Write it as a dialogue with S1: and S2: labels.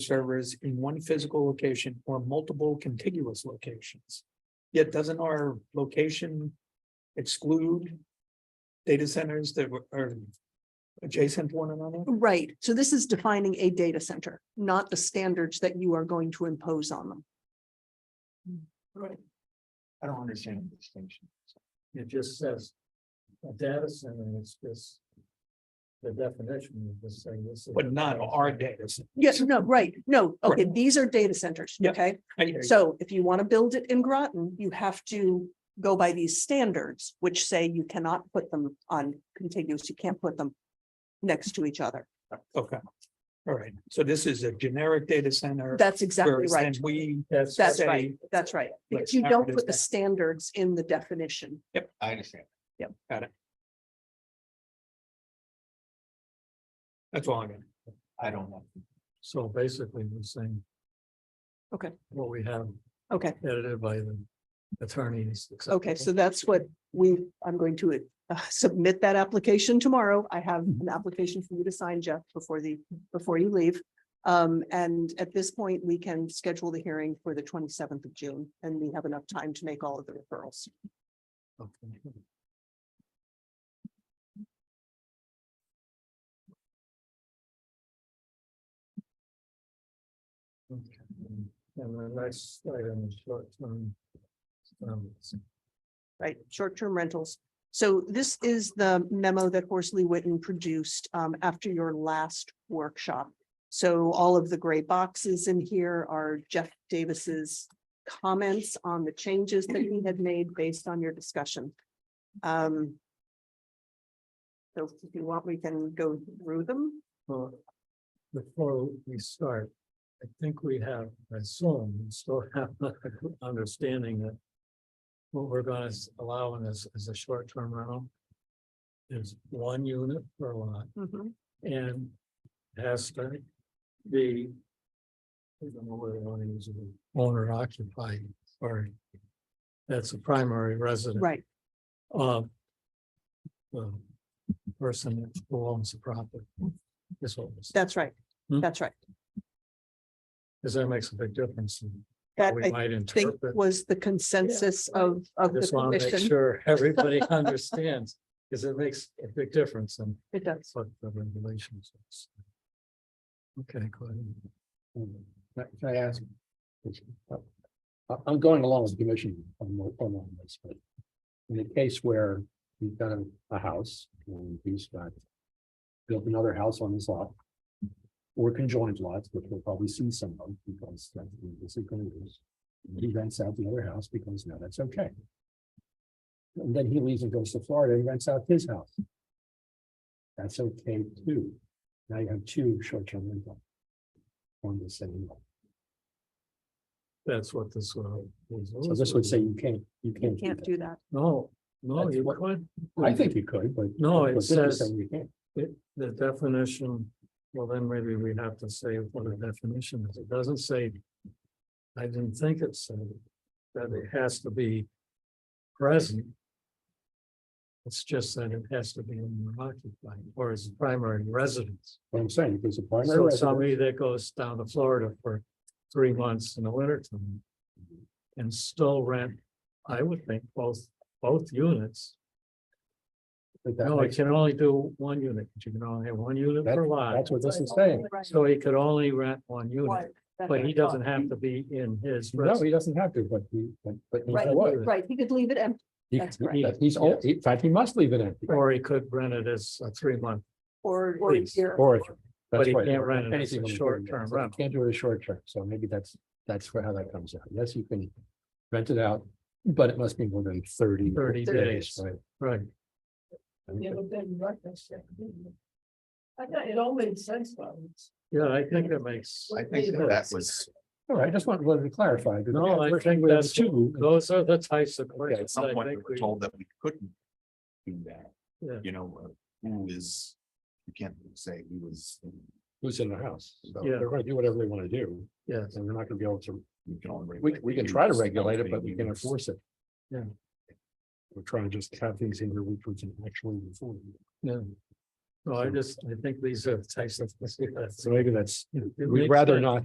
S1: servers in one physical location or multiple contiguous locations. Yet doesn't our location exclude data centers that were- are adjacent to one another?
S2: Right, so this is defining a data center, not the standards that you are going to impose on them.
S1: Right. I don't understand the distinction.
S3: It just says a data center, and it's just the definition of this thing. This is-
S1: But not our data. center.
S2: Yes, no, right, no, okay,
S1: Right.
S2: these are data centers,
S1: Yeah.
S2: okay?
S1: I hear you.
S2: So if you want to build it in Groton, you have to go by these standards, which say you cannot put them on contiguous, you can't put them next to each other.
S1: Okay. All right, so this is a generic data center.
S2: That's exactly
S1: whereas
S2: right.
S1: then We
S3: That's,
S2: That's
S1: say-
S2: right, that's right, because
S1: Let's
S2: you
S1: not
S2: don't
S1: reduce
S2: put the
S1: that.
S2: standards in the definition.
S4: I understand.
S1: that's all I'm gonna.
S4: I don't know.
S3: so basically we're saying.
S2: Okay.
S3: What we have
S2: Okay,
S3: edited by the attorneys.
S2: okay, so that's what we, I'm going to uh, submit that application tomorrow. I have an application for you to sign, Jeff, before the, before you leave. Um, and at this point, we can schedule the hearing for the twenty-seventh of June, and we have enough time to make all of the referrals.
S3: Okay. And the next item is short term. um,
S2: right, short-term rentals. So this is the memo that Horsley Witten produced um, after your last workshop. So all of the gray boxes in here are Jeff Davis's comments on the changes that he had made based on your discussion. Um, So if you want, we can go through them.
S3: Well, before we start, I think we have, I assume, we still have an understanding that what we're gonna s- allow in this is a short-term rental. Is one unit per lot
S2: Mm-hmm.
S3: and has to be I don't know whether I want to use the word owner occupied, sorry. That's a primary resident
S2: Right,
S3: of the person who owns the property. Is what we're saying.
S2: that's right.
S3: Hmm.
S2: That's right.
S3: Because that makes a big difference. in how
S2: That
S3: We
S2: I
S3: might
S2: think
S3: interpret.
S2: was the consensus of, of the
S3: Just want to make
S2: commission.
S3: sure everybody understands, because it makes a big difference in
S2: It does.
S3: what the regulations. is. Okay, go ahead.
S4: Um, Can can I ask? uh, I- I'm going along with the commission on, mo- on all this, but in a case where you've got a, a house and he's got built another house on his lot or conjoined lots, which we'll probably see some of because that's the basically is. He rents out the other house because now that's okay. And then he leaves and goes to Florida and rents out his house. That's okay too. Now you have two short-term rental on the same lot.
S3: That's what this will.
S4: So this would say you can't,
S2: You
S4: you can't. do
S2: can't
S4: that.
S2: do that.
S3: No, no,
S4: That's
S3: you
S4: what-
S3: could.
S4: I think you could, but.
S3: No, it
S4: but this is
S3: says-
S4: saying you can't.
S3: It, the definition, well, then maybe we have to say what the definition is. It doesn't say. I didn't think it said that it has to be present. It's just that it has to be owner occupied or is primary residence.
S4: What I'm saying, because a primary
S3: So
S4: residence,
S3: somebody that goes down to Florida for three months in the winter time. And still rent, I would think both, both units.
S4: but that
S3: No, it
S4: makes-
S3: can only do one unit. You can only have one unit per lot.
S4: that's what this is saying.
S2: Right.
S3: So he could only rent one
S2: Right,
S3: unit,
S2: that's
S3: but
S2: what
S3: he
S2: I thought.
S3: doesn't have to be in his.
S4: No, he doesn't have to, but he, but, but he
S2: Right,
S4: would.
S2: Right, he could leave it empty
S4: He-
S2: that's correct.
S4: that- He's, all- in fact, he must leave it empty.
S3: Or he could rent it as a three month.
S2: or, or
S3: Please,
S2: here.
S4: Or.
S3: But
S4: that's
S3: he
S4: right,
S3: can't
S4: or
S3: rent it as
S4: anything
S3: a
S4: on the
S3: short-term
S4: property. So you
S3: rental.
S4: Can't do it as short term, so maybe that's, that's where how that comes out. Yes, you can rent it out, but it must be more than thirty.
S3: 30 days.
S4: Right.
S3: Right.
S5: I thought it all made sense, but it's-
S3: Yeah, I think that makes.
S5: I think
S3: that
S4: was. All right, I just wanted wanted to clarify. 'cause
S3: No, I
S4: first
S3: think
S4: we had
S3: that's-
S4: two, and
S3: Those are the types of
S6: Yeah, at
S3: questions
S6: some
S3: I
S6: point, we
S3: think
S6: were
S3: we,
S6: told that we couldn't do that.
S3: Yeah.
S6: You know, uh, who is, you can't say who was,
S4: Who's in the house? So
S3: Yeah.
S4: They're gonna do whatever they wanna do,
S3: yes,
S4: and we're not gonna be able to,
S6: we can only.
S4: we,
S6: regulate
S4: we
S6: the
S4: can try to
S6: use,
S4: regulate it,
S6: okay,
S4: but we can
S6: use.
S4: enforce it.
S3: Yeah.
S4: We're trying to just have things in here which we can actually enforce.
S3: yeah. No, I just, I think these are the types of.
S4: So maybe that's,
S3: It- it
S4: we'd
S3: makes
S4: rather
S3: sense.
S4: not